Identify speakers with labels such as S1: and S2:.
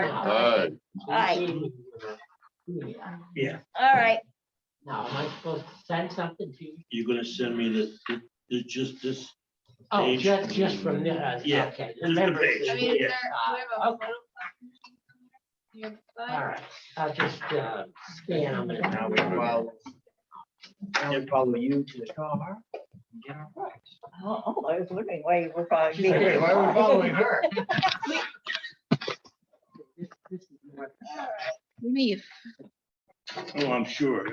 S1: Aye.
S2: Aye.
S3: Yeah,
S2: All right,
S4: Now, am I supposed to send something to you?
S3: you're gonna send me this, this, just this,
S4: Oh,
S3: Page.
S4: just, just from the, uh,
S3: Yeah,
S4: okay. the
S3: just the
S4: members
S3: page,
S5: I
S4: is-
S5: mean, is
S3: Yeah.
S5: there, do we have a
S4: Okay.
S5: photo? You have a
S4: All
S5: slide?
S4: right, I'll just, uh, scan them and
S6: Now
S4: I'll
S6: we follow, now we follow you to the car. and Get our prize.
S7: Oh, oh, I was wondering why you were following
S6: She's like, wait, why are we following her?
S7: me.
S3: oh, I'm sure.